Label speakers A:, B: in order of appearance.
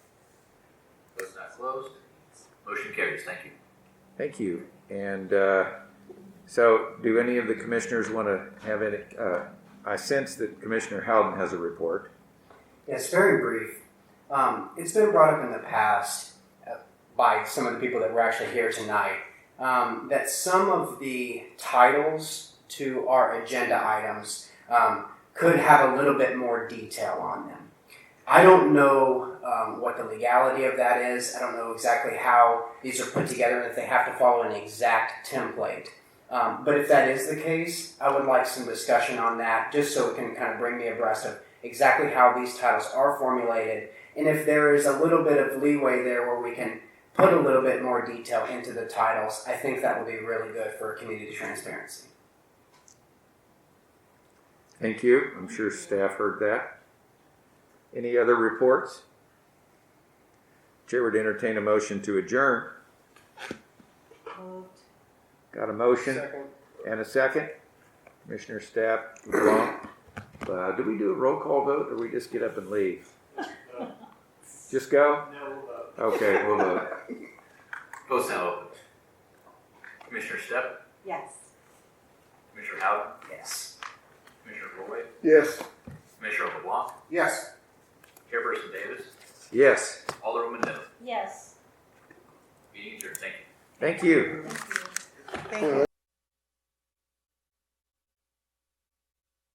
A: Opposed? Motion carries. Thank you.
B: Thank you. And uh, so, do any of the commissioners want to have any? Uh, I sense that Commissioner Howden has a report.
C: Yeah, it's very brief. Um, it's been brought up in the past uh, by some of the people that were actually here tonight um, that some of the titles to our agenda items um, could have a little bit more detail on them. I don't know um, what the legality of that is. I don't know exactly how these are put together and if they have to follow an exact template. Um, but if that is the case, I would like some discussion on that just so it can kind of bring me abreast of exactly how these titles are formulated, and if there is a little bit of leeway there where we can put a little bit more detail into the titles, I think that would be really good for community transparency.
B: Thank you. I'm sure staff heard that. Any other reports? Chair would entertain a motion to adjourn.
D: Moved.
B: Got a motion and a second. Commissioner Staff, LeBlanc. Uh, do we do a roll call vote, or we just get up and leave? Just go. Okay, we'll vote.
A: Votes now open. Commissioner Step,
D: Yes.
A: Commissioner Howden,
C: Yes.
A: Commissioner Roy,
E: Yes.
A: Commissioner LeBlanc,
E: Yes.
A: Chairperson Davis,
B: Yes.
A: Alderwoman Niven.
D: Yes.
A: Meeting adjourned. Thank you.
B: Thank you.
D: Thank you.
E: All right.